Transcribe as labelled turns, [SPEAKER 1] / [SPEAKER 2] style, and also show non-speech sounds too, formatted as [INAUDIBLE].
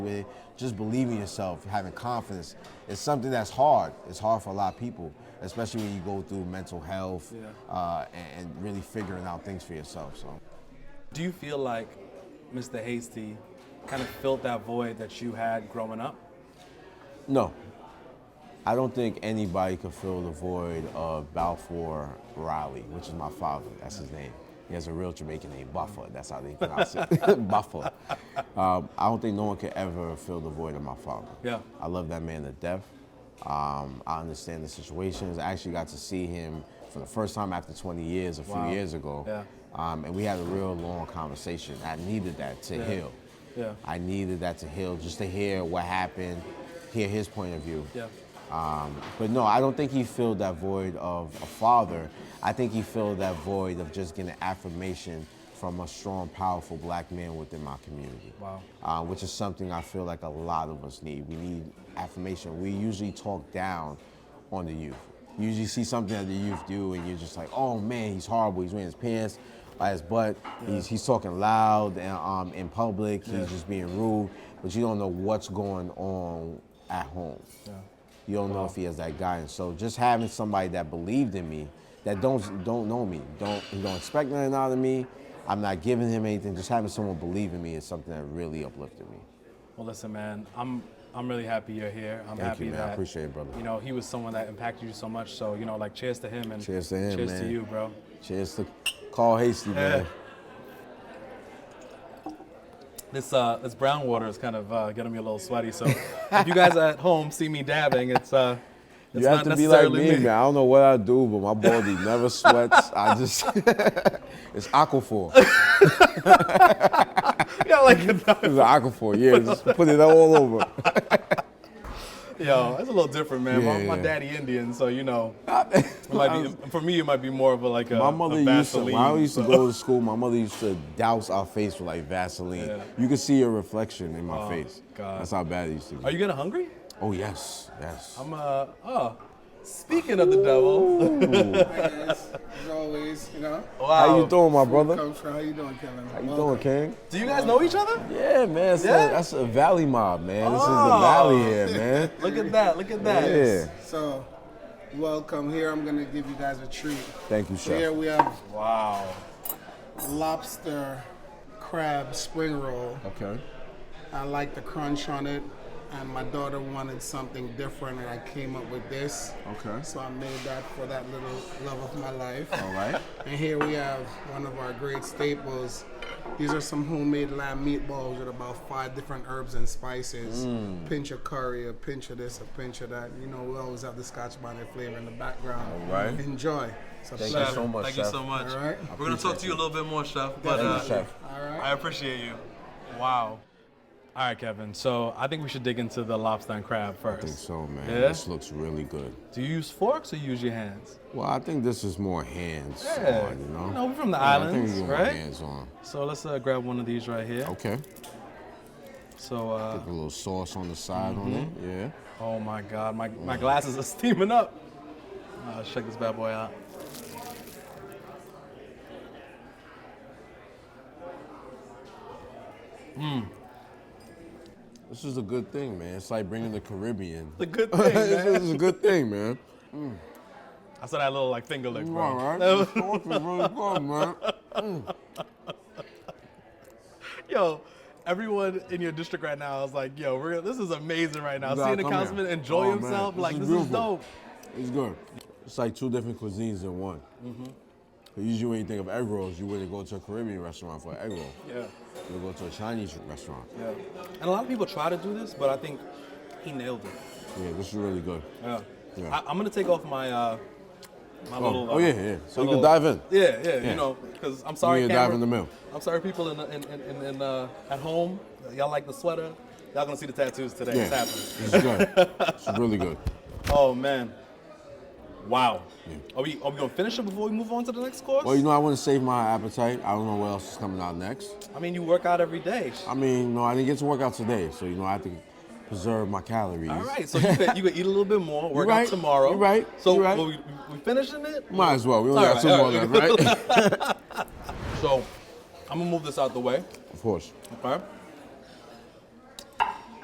[SPEAKER 1] with just believing yourself, having confidence. It's something that's hard. It's hard for a lot of people, especially when you go through mental health
[SPEAKER 2] Yeah.
[SPEAKER 1] uh, and, and really figuring out things for yourself. So
[SPEAKER 2] Do you feel like Mr. Hasty kind of filled that void that you had growing up?
[SPEAKER 1] no, I don't think anybody could fill the void of Balfour Riley, which is my father. That's his name. He has a real Jamaican name, Buffer. That's how they pronounce
[SPEAKER 2] [LAUGHS]
[SPEAKER 1] it, [LAUGHS] Buffer. Um, I don't think no one could ever fill the void of my father.
[SPEAKER 2] Yeah.
[SPEAKER 1] I love that man to death. Um, I understand the situations. I actually got to see him for the first time after 20 years, a few
[SPEAKER 2] Wow.
[SPEAKER 1] years ago.
[SPEAKER 2] Yeah.
[SPEAKER 1] Um, and we had a real long conversation. I needed that to
[SPEAKER 2] Yeah.
[SPEAKER 1] heal.
[SPEAKER 2] Yeah.
[SPEAKER 1] I needed that to heal, just to hear what happened, hear his point of view.
[SPEAKER 2] Yeah.
[SPEAKER 1] Um, but no, I don't think he filled that void of a father. I think he filled that void of just getting affirmation from a strong, powerful black man within my community.
[SPEAKER 2] Wow.
[SPEAKER 1] Uh, which is something I feel like a lot of us need. We need affirmation. We usually talk down on the youth. You usually see something that the youth do, and you're just like, oh man, he's horrible. He's wearing his pants by his butt. He's, he's talking loud and, um, in public.
[SPEAKER 2] Yeah.
[SPEAKER 1] He's just being rude. But you don't know what's going on at home. You don't know if he is that guy. And so just having somebody that believed in me, that don't don't know me, don't he don't expect nothing out of me. I'm not giving him anything. Just having someone believe in me is something that really uplifted me.
[SPEAKER 2] Well, listen, man, I'm I'm really happy you're here. I'm
[SPEAKER 1] Thank
[SPEAKER 2] happy
[SPEAKER 1] you, man. I
[SPEAKER 2] that
[SPEAKER 1] appreciate it, brother.
[SPEAKER 2] You know, he was someone that impacted you so much. So you know, like, cheers to him and
[SPEAKER 1] Cheers to him,
[SPEAKER 2] cheers to
[SPEAKER 1] man.
[SPEAKER 2] you, bro.
[SPEAKER 1] Cheers to Carl Hasty, man.
[SPEAKER 2] This uh, this brown water is kind of uh, getting me a little sweaty. So if you guys at home see me dabbing, it's uh, it's
[SPEAKER 1] You have
[SPEAKER 2] not
[SPEAKER 1] to be like
[SPEAKER 2] necessarily
[SPEAKER 1] me, man.
[SPEAKER 2] [LAUGHS]
[SPEAKER 1] I don't know what I do, but my body never sweats. I just [LAUGHS] it's aquaphor. It's
[SPEAKER 2] yeah, like
[SPEAKER 1] aquaphor. Yeah, just put it all over.
[SPEAKER 2] yo, it's a little different, man.
[SPEAKER 1] Yeah,
[SPEAKER 2] my, my
[SPEAKER 1] yeah.
[SPEAKER 2] daddy Indian, so
[SPEAKER 1] [LAUGHS]
[SPEAKER 2] you know, it might be, for me it might be more of a like a
[SPEAKER 1] My
[SPEAKER 2] a
[SPEAKER 1] mother used to. When I
[SPEAKER 2] Vaseline,
[SPEAKER 1] used to
[SPEAKER 2] so-
[SPEAKER 1] go to school, my mother used to douse our face with like Vaseline.
[SPEAKER 2] Yeah. Oh,
[SPEAKER 1] You could see your reflection in my face.
[SPEAKER 2] God.
[SPEAKER 1] That's how bad it used to be.
[SPEAKER 2] Are you getting hungry?
[SPEAKER 1] oh yes, yes.
[SPEAKER 2] I'm uh oh. Speaking of the devil,
[SPEAKER 3] As always, you know.
[SPEAKER 1] how you doing, my brother?
[SPEAKER 3] Coach, how you doing, Kevin?
[SPEAKER 1] How you doing, King?
[SPEAKER 2] Do you guys know each other?
[SPEAKER 1] Yeah, man. it's a-
[SPEAKER 2] Yeah?
[SPEAKER 1] that's a valley mob, man. This is the
[SPEAKER 2] Oh.
[SPEAKER 1] valley here, man.
[SPEAKER 2] Look at that! Look at that!
[SPEAKER 1] Yeah.
[SPEAKER 3] So, welcome here. I'm gonna give you guys a treat.
[SPEAKER 1] Thank you,
[SPEAKER 3] So here
[SPEAKER 1] chef.
[SPEAKER 3] we have
[SPEAKER 2] Wow.
[SPEAKER 3] lobster crab spring roll.
[SPEAKER 1] Okay.
[SPEAKER 3] I like the crunch on it, and my daughter wanted something different, and I came up with this.
[SPEAKER 1] Okay.
[SPEAKER 3] So I made that for that little love of my life.
[SPEAKER 1] All right.
[SPEAKER 3] And here we have one of our great staples. These are some homemade lamb meatballs with about five different herbs and spices.
[SPEAKER 1] Mm.
[SPEAKER 3] Pinch of curry, a pinch of this, a pinch of that. You know, we always have the Scotch bonnet flavor in the background.
[SPEAKER 1] All right.
[SPEAKER 3] Enjoy. It's a
[SPEAKER 1] Thank you
[SPEAKER 3] pleasure.
[SPEAKER 1] so much,
[SPEAKER 2] Thank
[SPEAKER 1] chef.
[SPEAKER 2] you so much.
[SPEAKER 3] All right. I
[SPEAKER 2] We're gonna talk
[SPEAKER 1] appreciate
[SPEAKER 2] to you a little bit more, chef. But
[SPEAKER 1] Thank you,
[SPEAKER 2] uh,
[SPEAKER 1] chef.
[SPEAKER 3] All right.
[SPEAKER 2] I appreciate you. Wow. All right, Kevin. So I think we should dig into the lobster and crab first.
[SPEAKER 1] I think so, man.
[SPEAKER 2] Yeah?
[SPEAKER 1] This looks really good.
[SPEAKER 2] Do you use forks or you use your hands?
[SPEAKER 1] Well, I think this is more hands
[SPEAKER 2] Yeah.
[SPEAKER 1] on, you know?
[SPEAKER 2] You know, we're from the
[SPEAKER 1] Yeah, I think
[SPEAKER 2] islands,
[SPEAKER 1] we more
[SPEAKER 2] right?
[SPEAKER 1] hands Oh. on.
[SPEAKER 2] So let's uh, grab one of these right here.
[SPEAKER 1] Okay.
[SPEAKER 2] So, uh,
[SPEAKER 1] A little sauce on the side on it. Yeah.
[SPEAKER 2] oh my God, my, my glasses are [LAUGHS] steaming up. Uh, let's check this bad boy out.
[SPEAKER 1] This is a good thing, man. It's like bringing the Caribbean. [LAUGHS]
[SPEAKER 2] The good thing,
[SPEAKER 1] this
[SPEAKER 2] man.
[SPEAKER 1] is a good thing, man.
[SPEAKER 2] I saw that little like finger lick,
[SPEAKER 1] You
[SPEAKER 2] bro.
[SPEAKER 1] all right? This sauce is really good, man.
[SPEAKER 2] Yo, everyone in your district right now is like, yo, we're, this is amazing right now.
[SPEAKER 1] Nah,
[SPEAKER 2] Seeing the
[SPEAKER 1] come here.
[SPEAKER 2] councilman enjoy
[SPEAKER 1] Oh, man.
[SPEAKER 2] himself,
[SPEAKER 1] This
[SPEAKER 2] like,
[SPEAKER 1] is
[SPEAKER 2] this is
[SPEAKER 1] beautiful.
[SPEAKER 2] dope.
[SPEAKER 1] It's good. It's like two different cuisines in one.
[SPEAKER 2] Mm-hmm.
[SPEAKER 1] Usually, when you think of egg rolls, you wouldn't go to a Caribbean restaurant for an egg roll.
[SPEAKER 2] Yeah,
[SPEAKER 1] You would go to a Chinese restaurant.
[SPEAKER 2] yeah. And a lot of people try to do this, but I think he nailed it.
[SPEAKER 1] Yeah, this is really good.
[SPEAKER 2] Yeah.
[SPEAKER 1] Yeah.
[SPEAKER 2] I, I'm gonna take off my uh, my
[SPEAKER 1] Oh,
[SPEAKER 2] little.
[SPEAKER 1] oh,
[SPEAKER 2] uh,
[SPEAKER 1] yeah, yeah. So
[SPEAKER 2] my
[SPEAKER 1] you can
[SPEAKER 2] little-
[SPEAKER 1] dive in.
[SPEAKER 2] Yeah, yeah.
[SPEAKER 1] Yeah.
[SPEAKER 2] You know, because I'm sorry,
[SPEAKER 1] need to
[SPEAKER 2] camera,
[SPEAKER 1] dive in the middle.
[SPEAKER 2] I'm sorry, people in in in, in, in uh, at home. Y'all like the sweater. Y'all gonna see the tattoos today.
[SPEAKER 1] Yeah.
[SPEAKER 2] It's happening.
[SPEAKER 1] This is good. it's really good.
[SPEAKER 2] Oh man. Wow.
[SPEAKER 1] Yeah.
[SPEAKER 2] Are we are we gonna finish it before we move on to the next course?
[SPEAKER 1] Well, you know, I want to save my appetite. I don't know what else is coming out next.
[SPEAKER 2] I mean, you work out every day.
[SPEAKER 1] I mean, no, I didn't get to work out today, so you know I have to preserve my calories.
[SPEAKER 2] All right, so you could, you could eat a little bit
[SPEAKER 1] [LAUGHS]
[SPEAKER 2] more, work
[SPEAKER 1] right,
[SPEAKER 2] out tomorrow.
[SPEAKER 1] you're right,
[SPEAKER 2] So
[SPEAKER 1] you're right.
[SPEAKER 2] will we, we finishing it?
[SPEAKER 1] Might as well. We only
[SPEAKER 2] All
[SPEAKER 1] got
[SPEAKER 2] right,
[SPEAKER 1] two
[SPEAKER 2] all
[SPEAKER 1] more
[SPEAKER 2] right. [LAUGHS]
[SPEAKER 1] left, right?
[SPEAKER 2] So I'm gonna move this out the way.
[SPEAKER 1] of course.
[SPEAKER 2] Okay.